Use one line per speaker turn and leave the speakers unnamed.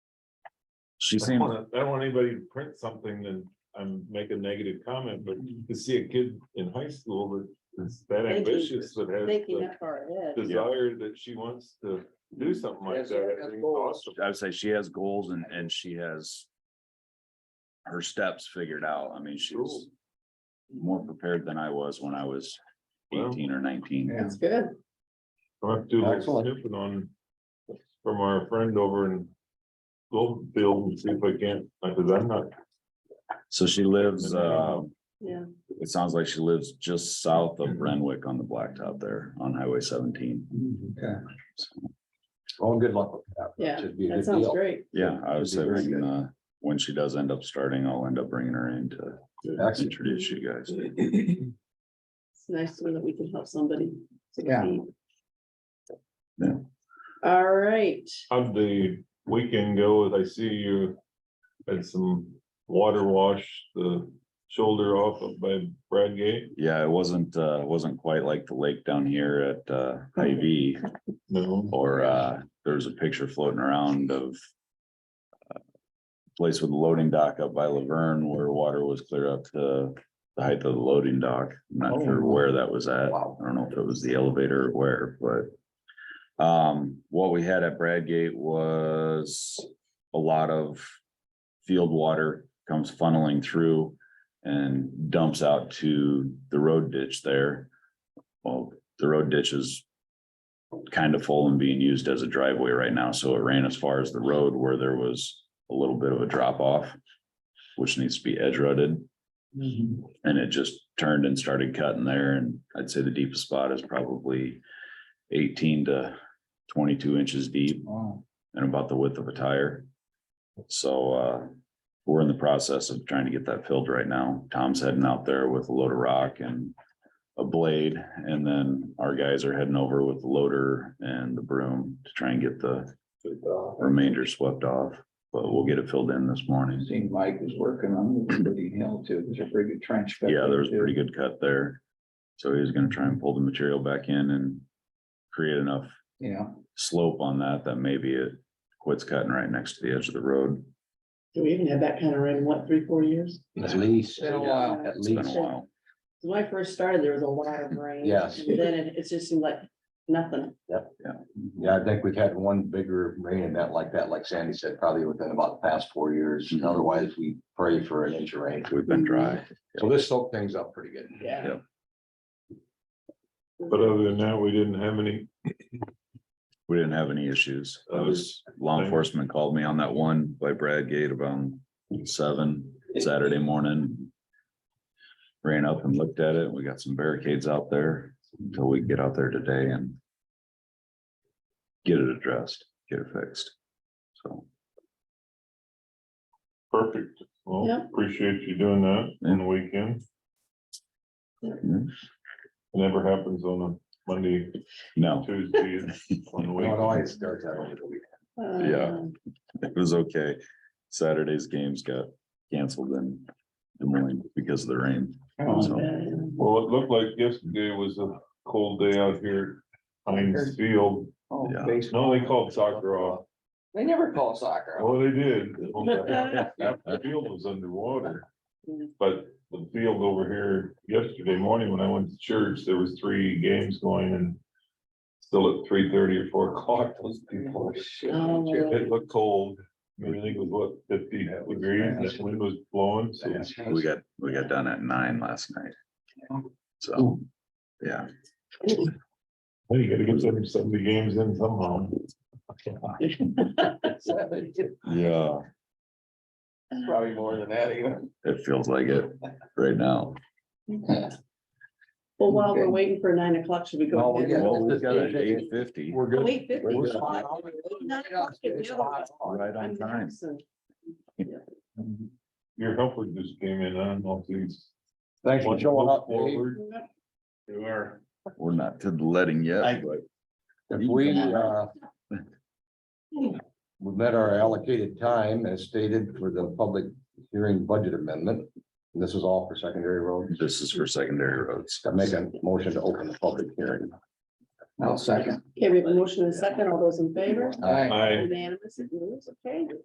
She
I don't
seems,
wanna- I don't want anybody to print something and I'm make a negative comment, but to see a kid in high school that's that
Mm-hmm. Thank you.
ambitious that has
Thinking
the
up our head.
desire that she wants to do something like
Yes,
that. I
that's
think it's
cool.
awesome.
I would say she has goals and, and she has her steps figured out. I mean,
Cool.
she's more prepared than I was when I was
Well.
eighteen or nineteen.
That's good.
I'll have to do a little
Excellent.
snooping on from our friend over in Goldville and see if I can, not because I'm not,
So she lives, uh,
Yeah,
it sounds like she lives just south of Renwick on the blacktop there on Highway seventeen.
Okay. Well, good luck with that.
yeah,
Should be a
that
good
sounds
deal.
great.
Yeah, I would
That'd be
say we
very
can,
good.
uh, when she does end up starting, I'll end up bringing her in to
Excellent.
introduce you guys.
It's nice to know that we can help somebody.
Yeah.
succeed.
Yeah.
All right,
how'd the weekend go? I see you had some water wash, the shoulder off of by Brad Gate.
Yeah, it wasn't, uh, wasn't quite like the lake down here at, uh, Hy-Vee.
No.
Or uh, there was a picture floating around of. uh, Place with the loading dock up by Laverne where water was clear up to the height of the loading dock. I'm not sure
Oh.
where that was at.
Wow.
I don't know if it was the elevator or where, but. Um, what we had at Bradgate was a lot of field water comes funneling through. And dumps out to the road ditch there. Well, the road ditch is kind of full and being used as a driveway right now, so it ran as far as the road where there was a little bit of a drop off. Which needs to be edge rutted,
Mm-hmm.
and it just turned and started cutting there, and I'd say the deepest spot is probably. Eighteen to twenty-two inches deep
Wow.
and about the width of a tire. So, uh, we're in the process of trying to get that filled right now. Tom's heading out there with a load of rock and a blade, and then our guys are heading over with the loader and the broom to try and get the remainder swept off. But we'll get it filled in this morning.
Seen Mike was working on the Liberty Hill too. There's a pretty good trench. cut
Yeah, there was a
too.
pretty good cut there. So he's gonna try and pull the material back in and create enough
Yeah,
slope on that that maybe it quits cutting right next to the edge of the road.
do we even have that kind of rain, in, what, three, four years?
At least,
been a while.
It's been a while.
When I first started, there was a lot of rain.
Yes.
And then it, it just seemed like nothing.
yeah, I think we've had one bigger rain event like that, like Sandy said, probably within about the past four years.
Mm-hmm.
And Otherwise, we pray for an inch of rain.
We've been dry.
So this soaked things up pretty good.
Yeah. Uh,
But uh, other than that, we didn't have any
We didn't have any issues. I was, law
Okay.
enforcement called me on that one by Brad Gate about seven Saturday morning. Ran up and looked at it. We got some barricades out there until we get out there today and get it addressed, get it fixed. So,
perfect. Well,
Yeah.
appreciate you doing that on the weekend.
mm,
It Never happens on a Monday,
no,
Tuesday, on the
It
weekend.
always starts out over the weekend.
Yeah.
Um,
it was okay. Saturday's games got canceled in Des Moines because of the rain.
Oh,
So,
uh,
Well, it looked like yesterday was a cold day out here. at Heinz Field.
oh,
Yeah.
baseball.
No, they called soccer off.
They never call soccer. off.
Oh, they did. The field was underwater. But the field over here yesterday morning when I went to church, there was three games going and still at three thirty or four o'clock, those people were
Oh.
It looked cold. I mean, I think it was what, fifty degrees, and the wind was blowing, so.
We got, we got done at nine last night. So, yeah.
Well, You gotta get some, some of the games in somehow.
Yeah.
Probably more than that even.
It feels like it right now.
Well, while we're
Okay.
waiting for nine o'clock, should we
No,
go?
we
ahead?
got-
Well, we've got it at eight fifty,
We're good.
Wait, fifty.
We're
Nine o'clock is the other one.
right on
I'm
time.
absent.
Your helper just came in, I don't know if he's.
Thanks for showing up, Dave.
Forward.
You are.
We're not to the letting
I-
yet, but
If we, uh. We met our allocated time as stated for the public hearing budget amendment. And This is all for secondary roads.
this is for secondary roads.
I make a motion to open the public hearing.
I'll second.
Okay, we have a motion and a second. All those in favor?
Uh,
Aye.
I.
Unanimous, it moves, okay.